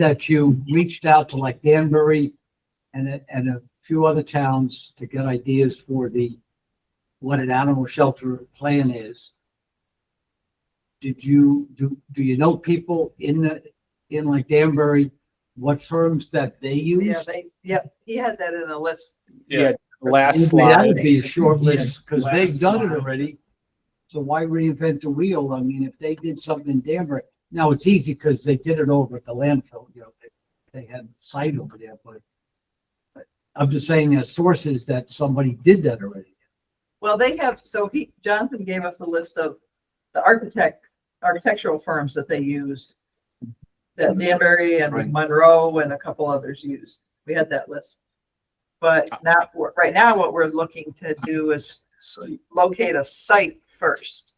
that you reached out to like Danbury and, a- and a few other towns to get ideas for the, what an animal shelter plan is. Did you, do, do you know people in the, in like Danbury, what firms that they Yeah, use? they, yeah, he had that in a list. Yeah. Last That would slide, be a short list, because they've Last done it slide. already. So why reinvent the wheel? I mean, if they did something in Danbury, now it's easy because they did it over at the landfill, you know, they, they had site over there, but but I'm just saying as sources that somebody did that already. Well, they have, so he, Jonathan gave us a list of the architect, architectural firms that they used. That Danbury and Monroe and a couple others used. We had that list. But now, right now, what we're looking to do is locate a site first.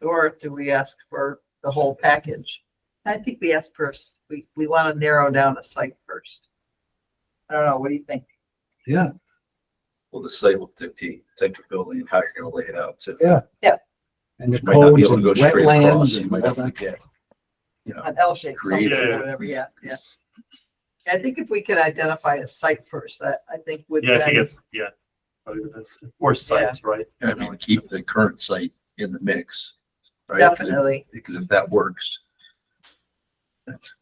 Or do we ask for the whole package? I think we ask first, we, we want to narrow down a site first. I don't know, what do you think? Yeah, Well, the site will dictate the type of building and how you're gonna lay it out too. Yeah. and the You Might not be codes able and to go straight across. wetlands You and might all have to that. get, you know, an L shape, something, Creative. or whatever, yeah, yeah. I think if we could identify a site first, that I think would. Yeah, I think then- it's, yeah. Probably the best. Or sites, right? I mean, keep the current site in the mix. right? 'Cause if- Definitely. Because if that works. that's-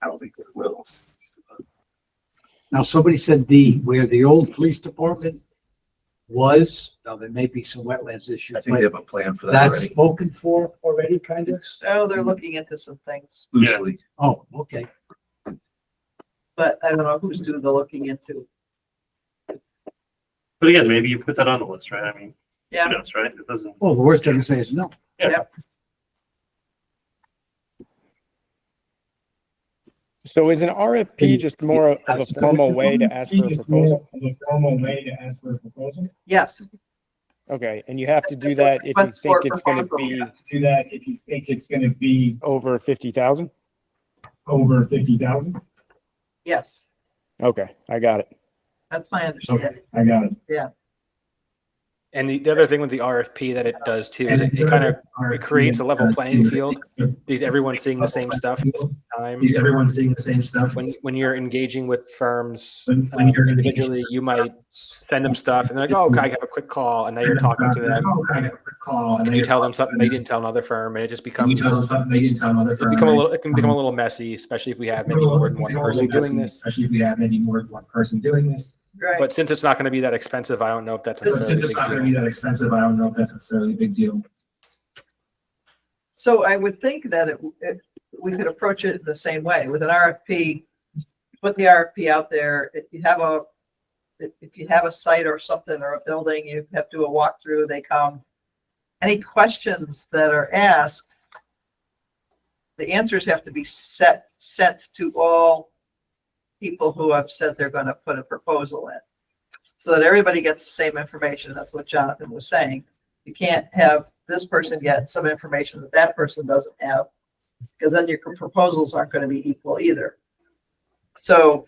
I don't think it will. Now, somebody said the, where the old police department was, now there may be some wetlands issues, I think they but have a plan for that that's already, spoken for already, kind of? Oh, Mm-hmm. they're looking into some things, loosely. Oh, okay. but I don't know who's doing the looking into. But again, maybe you put that on the list, right? I mean, who Yeah, knows, right? It doesn't. Well, the worst they can say is no. so is an RFP just more of a formal way to ask for a proposal? The formal way to ask for a proposal. yes, Okay, and you have to do It's a that if you request for think it's gonna proposal, be Yes, Do that if you think it's gonna be over fifty thousand? over fifty thousand. yes, Okay, I got it. that's my understanding. I got it. And the, the other thing with the RFP that it does too is it, it kind of it creates a uh, level playing field. Because everyone's seeing the same stuff at the time. Because everyone's seeing the same stuff. When when you're engaging with firms When- uh, when you're engaging individually, you might send them stuff and they're like, "Oh, okay, I have a quick call," and now you're talking Uh, to them. oh, Call And you tell them something they didn't tell another firm, and it just You becomes tell them it something they didn't tell another firm. become a little it can become a little messy, especially if we have maybe more than one person doing this. Especially if we have any more than one person doing this. Right, But since it's not going to be that expensive, I don't know if that's But necessarily Since a it's big not gonna deal. be that expensive, I don't know if that's necessarily a big deal. so I would think that it, if we could approach it the same way with an RFP. Put the RFP out there, if you have a, if if you have a site or something or a building, you have to do a walkthrough, they come. Any questions that are asked, the answers have to be set, sent to all people who have said they're gonna put a proposal in. So that everybody gets the same information. That's what Jonathan was saying. You can't have this person get some information that that person doesn't have. Cause then your proposals aren't gonna be equal either. So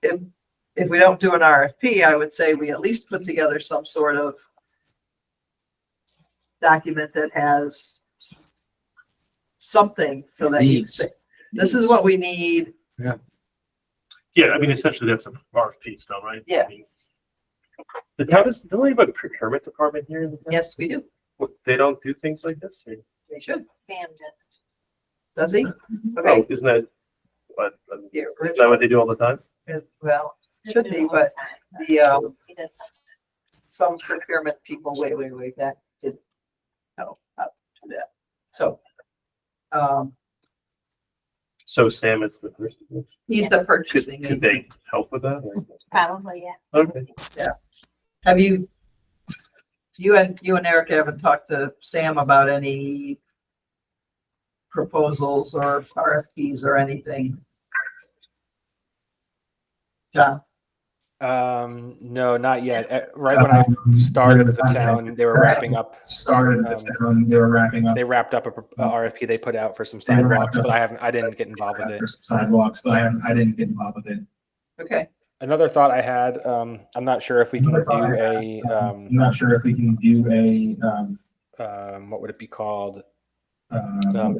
if, if we don't do an RFP, I would say we at least put together some sort of document that has something so that you say, this is what we need. Yeah, I mean, essentially that's a RFP still, right? I Yeah. mean, The town is, don't they have a procurement department here? in the town? Yes, we do. What, They don't do things like this? or- They should. Sam did. Does he? Oh, Okay. isn't that, what, um, Yeah, isn't that what they do all the time? as well, should be, but the, um, some procurement people, wait, wait, wait, that did, no, not do that. So, um, So Sam is the person. he's the Could, purchasing. could they help with that? or- Probably, yeah. Okay. Have you, you and, you and Eric haven't talked to Sam about any proposals or RFPs or anything? John, Um, no, not yet. Uh, Right when I started at the town, they were wrapping up Um, Started at the town, they were wrapping up. they wrapped up a, pro- a RFP they put out for some They wrapped sidewalks, up- but I haven't, I didn't get involved with it. for some sidewalks, but I haven't, I didn't get involved with it. okay, Another thought I had, um, I'm not sure if we can do Another thought I had, a, I'm um, not sure if we can do a, um, um, what would it be called? um, Um,